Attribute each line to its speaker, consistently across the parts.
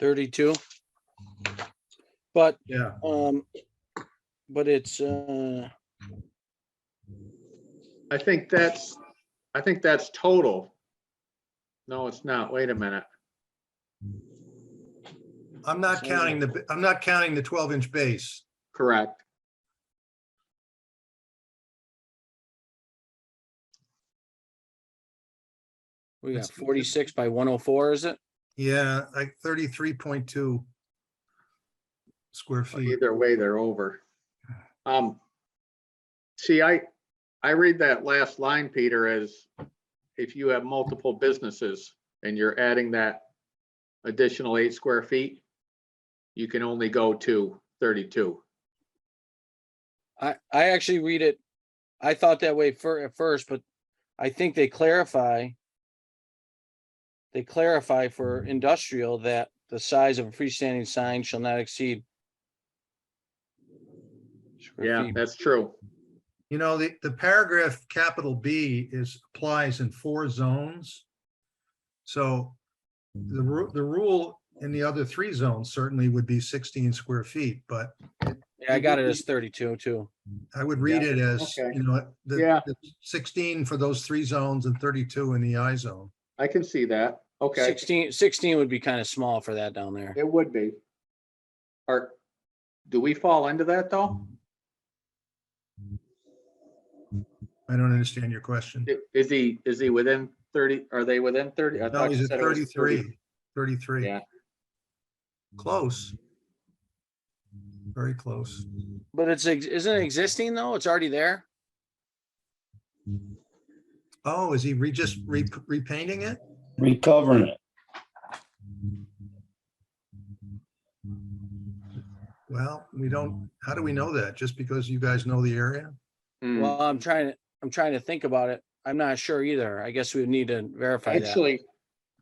Speaker 1: thirty-two. But,
Speaker 2: Yeah,
Speaker 1: um, but it's, uh,
Speaker 2: I think that's, I think that's total. No, it's not. Wait a minute.
Speaker 3: I'm not counting the, I'm not counting the twelve inch base.
Speaker 2: Correct.
Speaker 1: we got
Speaker 3: That's-
Speaker 1: forty-six by one oh four, is it?
Speaker 3: Yeah, like thirty-three point two square
Speaker 2: But
Speaker 3: feet.
Speaker 2: Either way, they're over. Um, see, I, I read that last line, Peter, as if you have multiple businesses and you're adding that additional eight square feet, you can only go to thirty-two.
Speaker 1: I, I actually read it, I thought that way fir- at first, but I think they clarify. They clarify for industrial that the size of a freestanding sign shall not exceed. square
Speaker 2: Yeah,
Speaker 1: feet.
Speaker 2: that's true.
Speaker 3: You know, the, the paragraph capital B is, applies in four zones. So the ru- the rule in the other three zones certainly would be sixteen square feet, but
Speaker 1: Yeah, I got it as thirty-two too.
Speaker 3: I would read
Speaker 1: Yeah,
Speaker 3: it as,
Speaker 2: okay.
Speaker 3: you know, the
Speaker 2: Yeah.
Speaker 3: the sixteen for those three zones and thirty-two in the I zone.
Speaker 2: I can see that. Okay.
Speaker 1: 16 16 would be kind of small for that down there.
Speaker 2: It would be. Or, do we fall into that though?
Speaker 3: I don't understand your question.
Speaker 2: I- Is he, is he within thirty, are they within thirty? I
Speaker 3: No,
Speaker 2: thought you
Speaker 3: he's at
Speaker 2: said it was 30.
Speaker 3: 33, 33.
Speaker 2: Yeah.
Speaker 3: Close. Very close.
Speaker 1: But it's, ex- isn't it existing though? It's already there?
Speaker 3: Oh, is he re, just re- repainting it?
Speaker 4: recovering it.
Speaker 3: Well, we don't, how do we know that? Just because you guys know the area?
Speaker 2: Hmm.
Speaker 1: Well, I'm trying, to. I'm trying to think about it. I'm not sure either. I guess we would need to verify that.
Speaker 2: Actually,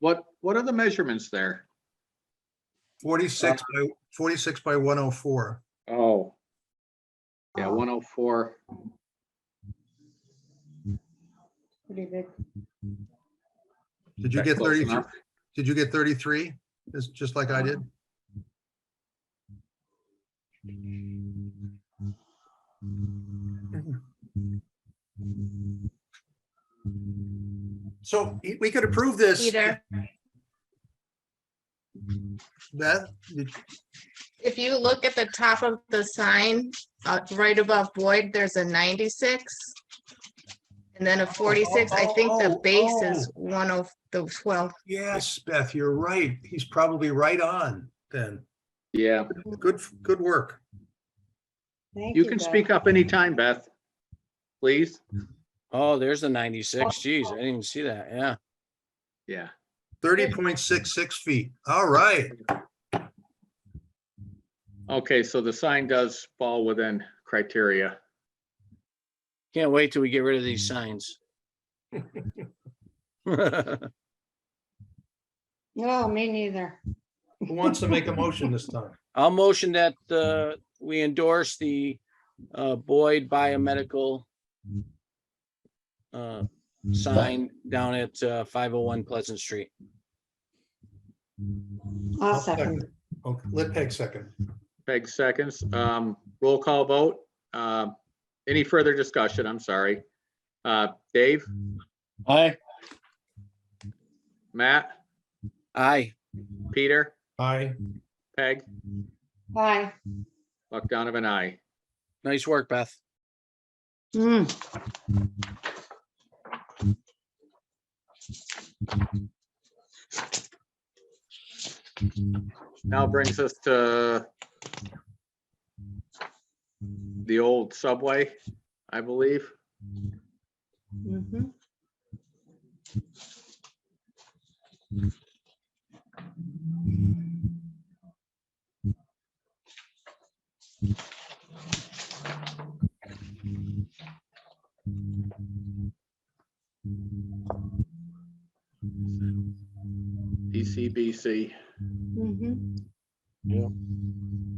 Speaker 2: what, what are the measurements there?
Speaker 3: 46
Speaker 2: Uh,
Speaker 3: by, 46 by 104.
Speaker 2: Oh. Yeah, one oh four.
Speaker 5: Pretty big.
Speaker 3: Did you get 33? Did you get 33? Just, just like I did? So we- we could approve this.
Speaker 5: Peter,
Speaker 3: Beth, did-
Speaker 5: if you look at the top of the sign, uh, right above Boyd, there's a 96. And then a 46. I think the
Speaker 3: Oh,
Speaker 5: base is
Speaker 3: oh.
Speaker 5: one of the 12.
Speaker 3: yes, Beth, you're right. He's probably right on then.
Speaker 2: Yeah,
Speaker 3: Good, good work.
Speaker 2: you can speak up anytime, Beth. Please?
Speaker 1: Oh, there's the ninety-six. Geez, I didn't even see that. Yeah.
Speaker 2: Yeah,
Speaker 3: 30.66 feet. All right.
Speaker 2: okay, so the sign does fall within criteria.
Speaker 1: Can't wait till we get rid of these signs. Who
Speaker 6: No, Oh, me neither.
Speaker 3: Who wants to make a motion this time?
Speaker 1: I'll motion that, uh, we endorse the, uh, Boyd Biomedical uh, sign down at, uh, five oh one Pleasant Street.
Speaker 6: I'll second.
Speaker 3: Okay, let Peg second.
Speaker 2: Peg seconds, um, roll call vote. Um, any further discussion? I'm sorry. Uh, Dave,
Speaker 4: Aye,
Speaker 2: Matt,
Speaker 1: Aye.
Speaker 2: Peter,
Speaker 3: Aye.
Speaker 2: Peg,
Speaker 6: Bye.
Speaker 2: Buck Donovan, I.
Speaker 1: Nice work, Beth.
Speaker 6: Mm,
Speaker 2: Now brings us to the old subway, I believe.
Speaker 6: mhm.
Speaker 2: DCBC.
Speaker 6: Mhm. Mm-hmm.
Speaker 1: Yeah.